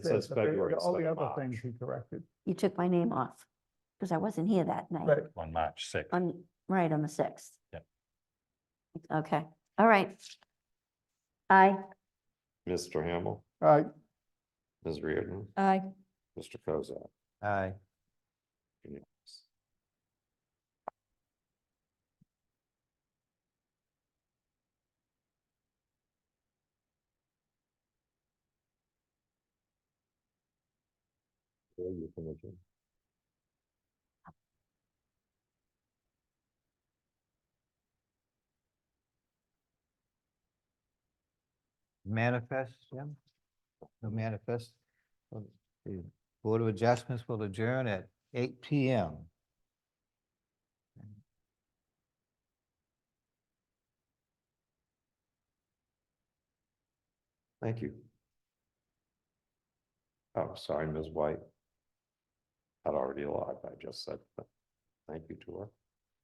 It says but the- February, the- it's All like the other March. things he corrected, You took my name off because I wasn't here that night. right, on March sixth. On, right, on the sixth. Yep. Okay, all right. Aye. Mr. Hamel, uh, Ms. Reardon, Aye. Mr. Kozak. Aye. unanimous. Yeah, you can adjourn. Manifest, Jim? The manifest, of the Board of Adjustments will adjourn at eight P M. Thank you. Oh, sorry, Ms. White. I'd already lied, I just said, that. thank you to her.